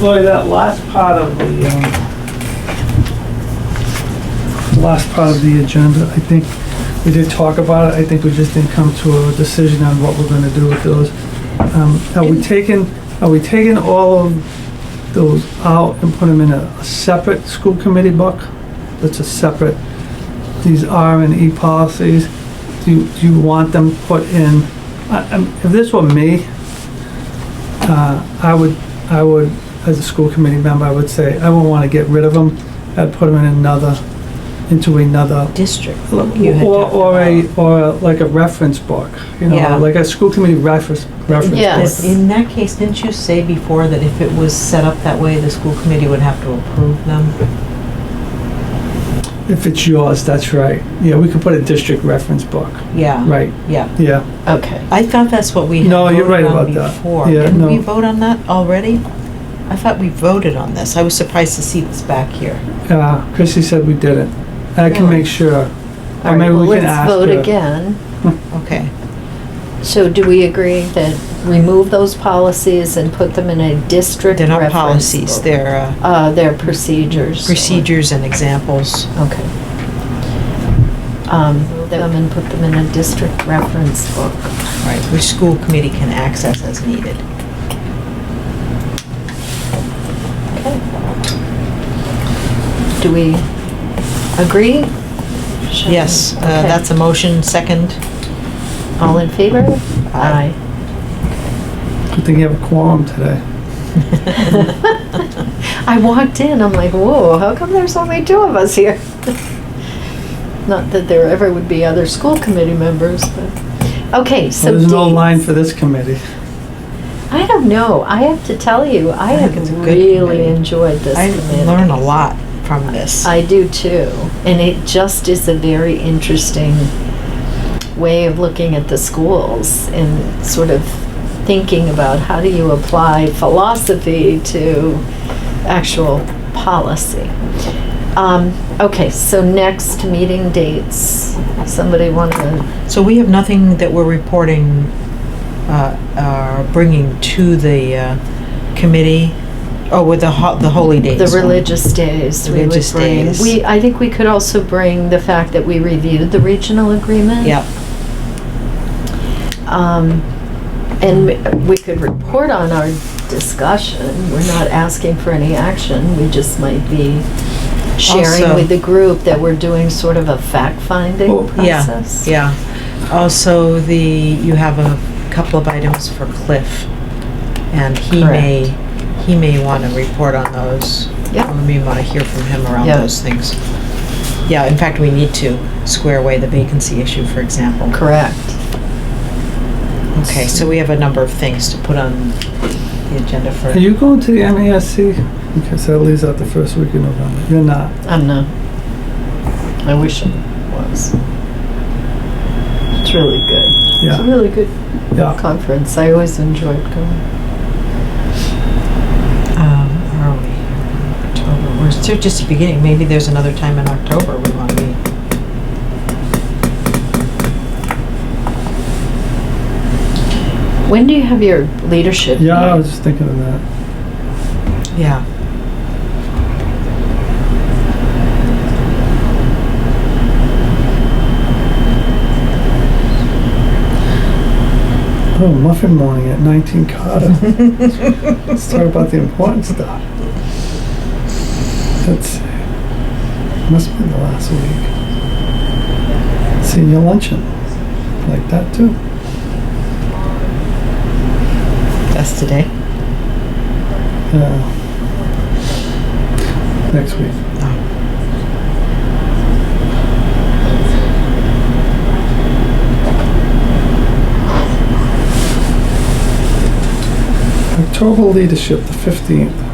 Lori, that last part of the, um, the last part of the agenda, I think we did talk about it. I think we just didn't come to a decision on what we're gonna do with those. Um, are we taking, are we taking all of those out and put them in a a separate school committee book? That's a separate, these R and E policies. Do, you- do you want them put in? I, I'm, if this were me, uh, I would, I would, as a school committee member, I would say, I would want to get rid of them. I'd put them in another, into another, district. You had or, talked or a, about. or a- like a reference book, you Yeah. know, like a school committee reference, reference Yes. book. In that case, didn't you say before that if it was set up that way, the school committee would have to approve them? If it's yours, that's right. Yeah, we could put a district reference book, Yeah, right, yeah. yeah. Okay. I thought that's what we had No, you're right voted on about that. before. Yeah, Didn't we no. vote on that already? I thought we voted on this. I was surprised to see this back here. Uh, Chrissy said we did it. I can Really? make sure. All Or right, maybe well, we can let's ask vote her. again. Okay. So do we agree that remove those policies and put them in a district They're not reference policies, book? they're uh, Uh, they're procedures. procedures and examples. Okay. Um, them and put them in a district reference book. Right, which school committee can access as needed. Do we agree? Shall Yes, uh, we- okay. that's a motion, second. All in favor? Aye. Good thing you have a quorum today. I walked in, I'm like, whoa, how come there's only two of us here? Not that there ever would be other school committee members, but, okay, so. Well, There's no dates. line for this committee. I don't know, I have to tell you, I I think have it's a good really committee. enjoyed this I committee. learn a lot from this. I do too, and it just is a very interesting way of looking at the schools and sort of thinking about how do you apply philosophy to actual policy. Um, okay, so next meeting dates, somebody want to, So we have nothing that we're reporting, uh, uh, bringing to the uh, committee, oh, with the ho- the holy days. the religious days we would Religious bring. days. We, I think we could also bring the fact that we reviewed the regional agreement. Yep, Um, And we could report on our discussion. We're not asking for any action. We just might be sharing Also- with the group that we're doing sort of a fact-finding Oh, yeah, process. yeah. Also, the, you have a couple of items for Cliff, and he may, he may want to report on those. Yeah. We may want to hear from him around Yeah. those things. Yeah, in fact, we need to square away the vacancy issue, for example. Correct. Okay, so we have a number of things to put on the agenda for. Are you going to the MASC? Okay, so that leaves out the first week in November. You're not. I'm not, I wish I was. It's really good. It's a Yeah, really good yeah. conference. I always enjoyed going. Um, where are we? October, we're still just the beginning, maybe there's another time in October we want to meet. When do you have your leadership? Yeah, I meeting? was just thinking of that. Yeah. Oh, muffin morning at 19 Carter. Let's talk about the important stuff. Let's see. Must be the last week. Senior luncheon. Like that too. That's today. Yeah. Next week. October leadership, the 15th.